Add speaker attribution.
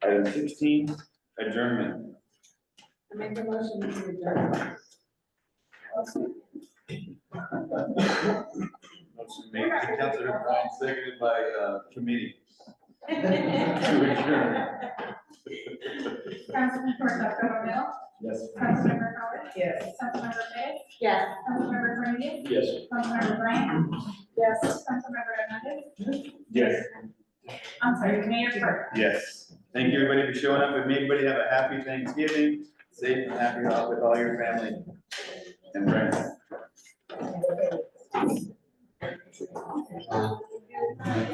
Speaker 1: Item sixteen, adjournment.
Speaker 2: I make a motion to adjourn.
Speaker 1: Motion made by Councilor Brown, seconded by, uh, committee to adjourn.
Speaker 3: Councilmember Dr. Romero,
Speaker 1: Yes.
Speaker 3: Councilmember Howard,
Speaker 2: Yes.
Speaker 3: Councilmember Fittis,
Speaker 2: Yes.
Speaker 3: Councilmember Brennan,
Speaker 1: Yes.
Speaker 3: Councilmember Bryant,
Speaker 2: Yes.
Speaker 3: Councilmember Hernandez,
Speaker 1: Yes.
Speaker 3: I'm sorry, Mayor Burke.
Speaker 1: Yes. Thank you, everybody, for showing up, and may everybody have a happy Thanksgiving, safe and happy holiday with all your family and friends.